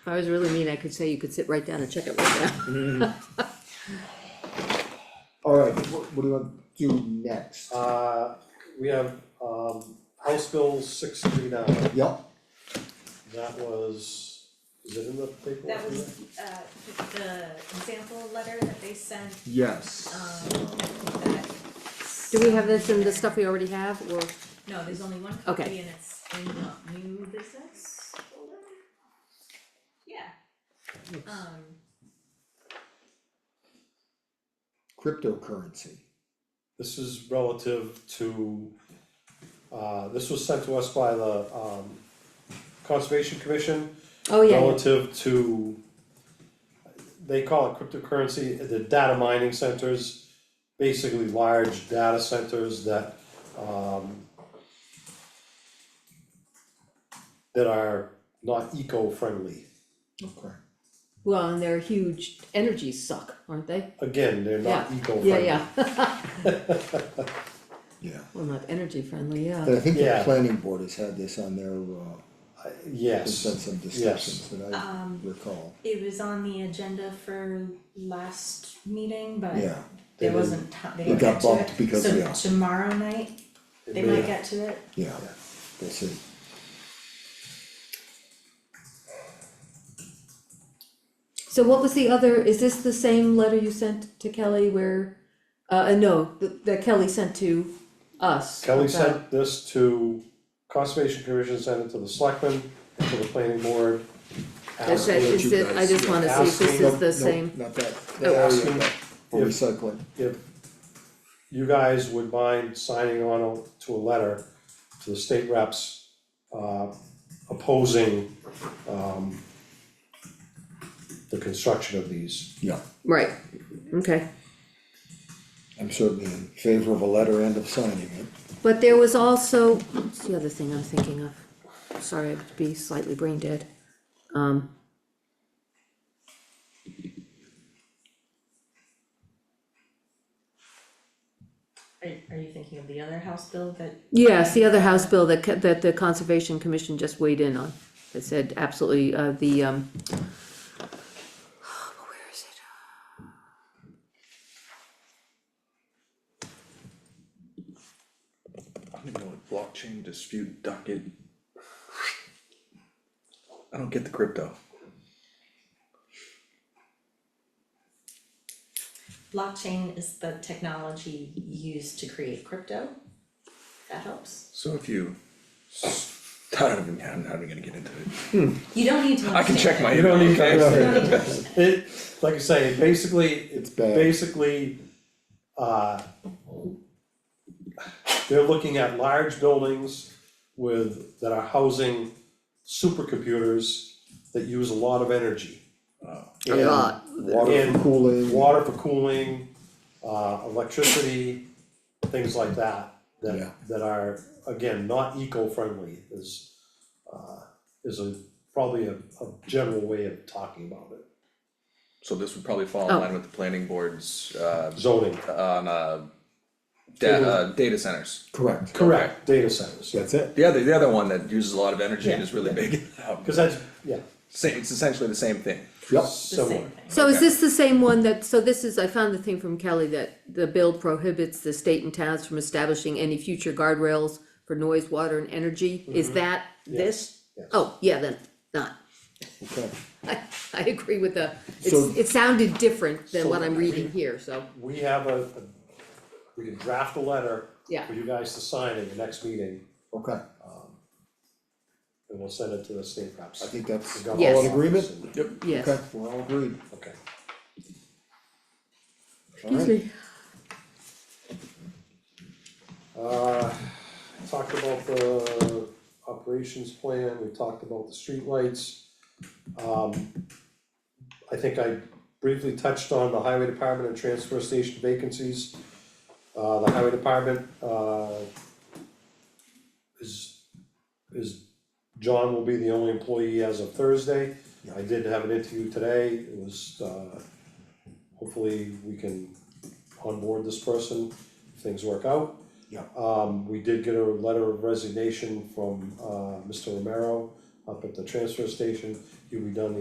If I was really mean, I could say you could sit right down and check it right now. Alright, what, what do you want to do next? Uh, we have, um, House Bill six three nine, Yep, that was, is it in the paperwork? That was, uh, the example letter that they sent, yes. um, that. Do we have this in the stuff we already have, or, No, there's only one Okay. copy and it's in the new business folder. Yeah, um, Cryptocurrency, This is relative to, uh, this was sent to us by the, um, Conservation Commission. oh, yeah, yeah, Relative to, they call it cryptocurrency, the data mining centers, basically large data centers that, um, that are not eco-friendly. okay. well, and they're huge, energies suck, aren't they? Again, they're not Yeah. eco-friendly. Yeah, yeah, Yeah, well, not energy friendly, yeah, but I think the Yeah. planning board has had this on their, uh, there's Yes. been some discussions that I um, recall, it was on the agenda for last meeting, but yeah. They there didn't- wasn't time, they it didn't got get to it. bumped because, yeah. So tomorrow night, It they may- might get to it. Yeah, that's it. so what was the other, is this the same letter you sent to Kelly where, uh, uh, no, that, that Kelly sent to us? Kelly about- sent this to Conservation Commission, sent it to the selectmen, to the planning board. That's asking it, what is you it- I guys- just wanna see if this yeah. is the same, Nope, nope, not that, that Oh. area, Asking but for if- recycling, If you guys would mind signing on to a letter to the state reps, uh, opposing, um, the construction of these. yeah, right, okay. I'm certainly in favor of a letter and of signing it. But there was also, what's the other thing I'm thinking of? Sorry, I'd be slightly brain dead. Um. Are, are you thinking of the other House bill that Yes, the other House bill that, ca- that the Conservation Commission just weighed in on, that said absolutely, uh, the, um. Where is it? I don't even know what blockchain dispute docket. I don't get the crypto. blockchain is the technology used to create crypto? That helps. So if you, I don't even, I'm not even gonna get into it. You don't need to I can check my You don't email, need okay? to- It, like I say, it basically, it's bad. basically, uh. They're looking at large buildings with, that are housing supercomputers that use a lot of energy. A And lot. Water for And cooling. Water for cooling, uh, electricity, things like that, Yeah. that, that are, again, not eco-friendly is, uh, is a, probably a, a general way of talking about it. So this would probably fall in line with the planning board's, uh, Zoning. on, uh, da- uh, data centers. Correct. Correct, data centers, That's it. The other, the other one that uses a lot of energy and is really Yeah. big, cause that's, yeah, sa- it's essentially the same thing. Yep. The same similar, thing. So is this the same one that, so this is, I found the thing from Kelly that the bill prohibits the state and towns from establishing any future guardrails for noise, water and energy, is that this? Yes. Oh, yeah, then, not, Okay, I, I agree with the, So- it's, it sounded different than what So- I'm reading here, so, we have a, a- we can draft a letter Yeah. for you guys to sign in the next meeting, okay, and we'll send it to the state reps. I think that's The all Yes. in government agreement? office. Yep. yes. Okay, we're all agreed, Okay, alright. uh, talked about the operations plan, we talked about the streetlights. Um, I think I briefly touched on the highway department and transfer station vacancies. Uh, the highway department, uh, is, is, John will be the only employee as of Thursday. I did have an interview today, it was, uh, hopefully we can onboard this person, if things work out. Yeah. Um, we did get a letter of resignation from, uh, Mr. Romero up at the transfer station, he'll be done the